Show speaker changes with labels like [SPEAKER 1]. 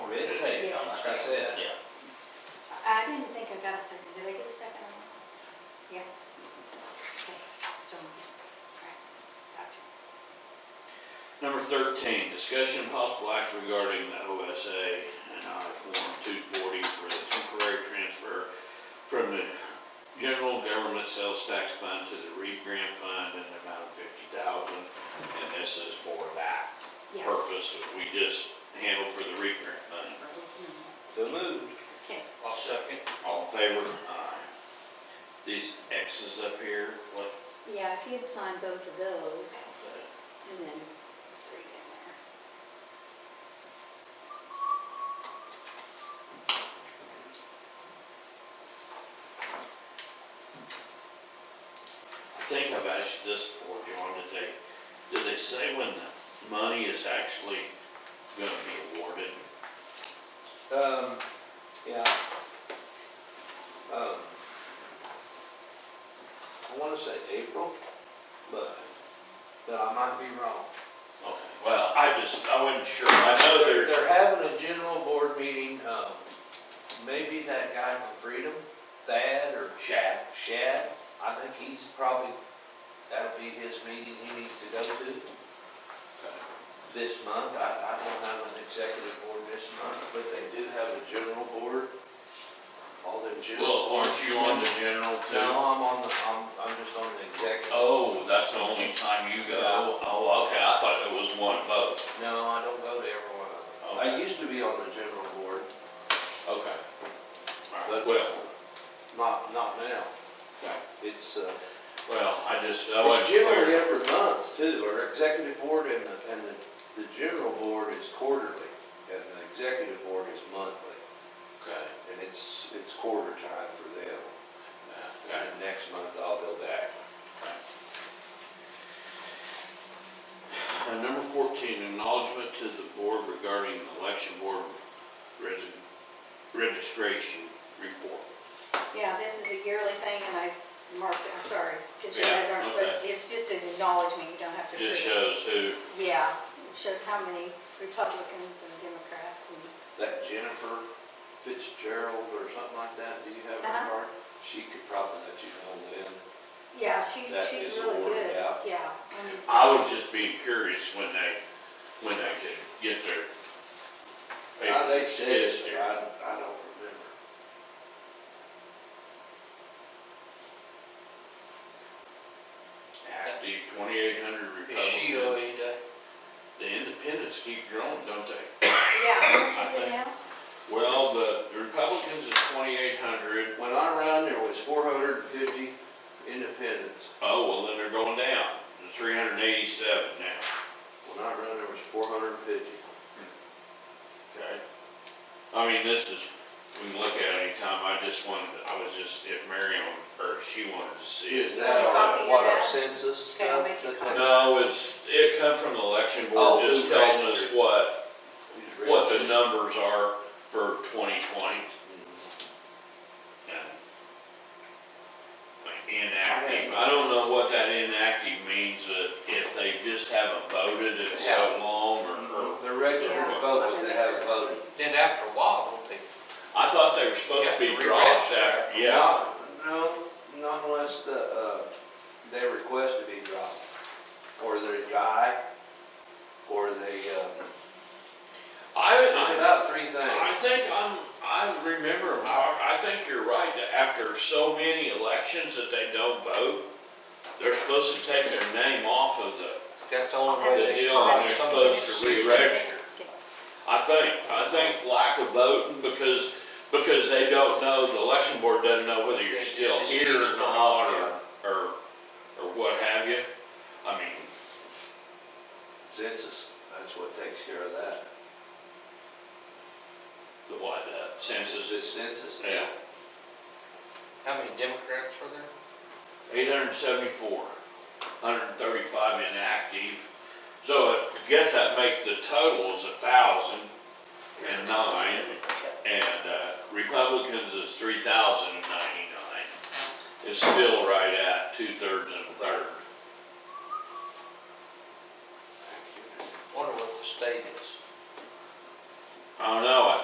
[SPEAKER 1] Uh, a second, did I get a second? on that? Yeah. Okay, so moved. All right, gotcha.
[SPEAKER 2] Number thirteen, discussion and possible action regarding the OSA and I Form two forty for the temporary transfer from the general government sales tax fund to the REAP grant fund in the amount of fifty thousand. And this is for that
[SPEAKER 1] Yes.
[SPEAKER 2] purpose that we just handled for the REAP grant money.
[SPEAKER 3] So moved.
[SPEAKER 1] Okay,
[SPEAKER 3] I'll second.
[SPEAKER 2] All in favor? Aye. These X's up here, what,
[SPEAKER 4] Yeah, if you'd sign both of those and then
[SPEAKER 1] three in there.
[SPEAKER 2] I think I've asked you this before, John, did they, did they say when the money is actually gonna be awarded?
[SPEAKER 3] Um, yeah. Um, I wanna say April, but, but I might be wrong.
[SPEAKER 2] Okay, well, I just, I wasn't sure, I know there's,
[SPEAKER 3] They're having a general board meeting, um, maybe that guy from Freedom, Thad or Shad, Shad, I think he's probably, that'll be his meeting he needs to go to this month. I, I don't have an executive board this month, but they do have a general board. All their general.
[SPEAKER 2] well, aren't you on the general
[SPEAKER 3] No,
[SPEAKER 2] too?
[SPEAKER 3] I'm on the, I'm, I'm just on the executive.
[SPEAKER 2] Oh, that's the only time you go, oh, okay, I thought it was one vote,
[SPEAKER 3] No, I don't go to every one of them.
[SPEAKER 2] Oh.
[SPEAKER 3] I used to be on the general board,
[SPEAKER 2] okay. All right,
[SPEAKER 3] But-
[SPEAKER 2] well,
[SPEAKER 3] not, not now.
[SPEAKER 2] okay,
[SPEAKER 3] It's, uh,
[SPEAKER 2] well, I just, I wasn't
[SPEAKER 3] it's generally
[SPEAKER 2] clear.
[SPEAKER 3] every month too, our executive board and the, and the, the general board is quarterly, and the executive board is monthly,
[SPEAKER 2] Okay,
[SPEAKER 3] and it's, it's quarter time for them.
[SPEAKER 2] yeah, okay.
[SPEAKER 3] And next month I'll go back.
[SPEAKER 2] And number fourteen, acknowledgement to the board regarding the election board resi- registration report.
[SPEAKER 1] Yeah, this is a yearly thing and I marked, it. I'm sorry, because you
[SPEAKER 2] Yeah,
[SPEAKER 1] guys aren't
[SPEAKER 2] okay.
[SPEAKER 1] supposed, to- it's just an acknowledgement, you don't have to.
[SPEAKER 2] Just
[SPEAKER 1] approve
[SPEAKER 2] shows who,
[SPEAKER 1] it. Yeah, it shows how many Republicans and Democrats and,
[SPEAKER 3] That Jennifer Fitzgerald or something like that, do you have
[SPEAKER 1] Uh-huh.
[SPEAKER 3] her card? She could probably let you know then.
[SPEAKER 1] yeah, she's,
[SPEAKER 3] That
[SPEAKER 1] she's
[SPEAKER 3] is
[SPEAKER 1] really
[SPEAKER 3] awarded
[SPEAKER 1] good,
[SPEAKER 3] out.
[SPEAKER 1] yeah. and-
[SPEAKER 2] I was just being curious when they, when they could get their.
[SPEAKER 3] Now, Ah, Uh, they said,
[SPEAKER 2] papers
[SPEAKER 3] but
[SPEAKER 2] here.
[SPEAKER 3] I, I don't remember.
[SPEAKER 2] Active twenty-eight hundred
[SPEAKER 5] Is she
[SPEAKER 2] Republicans.
[SPEAKER 5] OA day?
[SPEAKER 2] The independents keep growing, don't they?
[SPEAKER 1] Yeah, how much
[SPEAKER 2] I
[SPEAKER 1] is it
[SPEAKER 2] think-
[SPEAKER 1] now?
[SPEAKER 2] Well, the the Republicans is twenty-eight hundred.
[SPEAKER 3] When I ran, there was four hundred and fifty independents.
[SPEAKER 2] Oh, well, then they're going down to three hundred and eighty-seven now.
[SPEAKER 3] When I ran, there was four hundred and fifty.
[SPEAKER 2] Okay. I mean, this is, we can look at it anytime. I just wanted, I was just, if Miriam, or if she wanted to see it.
[SPEAKER 3] Is that our,
[SPEAKER 1] Copy of
[SPEAKER 3] what our
[SPEAKER 1] that.
[SPEAKER 3] census
[SPEAKER 1] Okay, I'll
[SPEAKER 3] stuff?
[SPEAKER 1] make a
[SPEAKER 3] that
[SPEAKER 1] copy.
[SPEAKER 3] they-
[SPEAKER 2] No, it's, it come from the election board,
[SPEAKER 3] Oh,
[SPEAKER 2] just
[SPEAKER 3] who
[SPEAKER 2] telling us
[SPEAKER 3] registered?
[SPEAKER 2] what,
[SPEAKER 3] we just read
[SPEAKER 2] what
[SPEAKER 3] it.
[SPEAKER 2] the numbers are for twenty twenty. Inactive, I don't know what that inactive means, uh, if they just haven't voted in so long, or, or,
[SPEAKER 3] They're registered to vote, but they haven't voted.
[SPEAKER 5] Then after a while, don't they?
[SPEAKER 2] I thought they were supposed to be
[SPEAKER 5] Yeah,
[SPEAKER 2] dropped out, yeah.
[SPEAKER 3] No, not unless the, uh, they request to be dropped, or they die, or they, uh, it's
[SPEAKER 2] I,
[SPEAKER 3] about three
[SPEAKER 2] I, I
[SPEAKER 3] things.
[SPEAKER 2] think I'm, I remember, I, I think you're right, that after so many elections that they don't vote, they're supposed to take their name off of the
[SPEAKER 5] That's the only way
[SPEAKER 2] The
[SPEAKER 5] they.
[SPEAKER 2] deal on you're supposed to re-register. I think, I think lack of voting because, because they don't know, the election board doesn't know whether you're still here or not or, or, or what have you. I mean,
[SPEAKER 3] Census, that's what takes care of that.
[SPEAKER 2] the what, uh, census is,
[SPEAKER 3] It's census.
[SPEAKER 2] yeah,
[SPEAKER 5] How many Democrats were there?
[SPEAKER 2] eight hundred and seventy-four, hundred and thirty-five inactive. So I guess that makes the total is a thousand and nine. And uh, Republicans is three thousand and ninety-nine. It's still right at two-thirds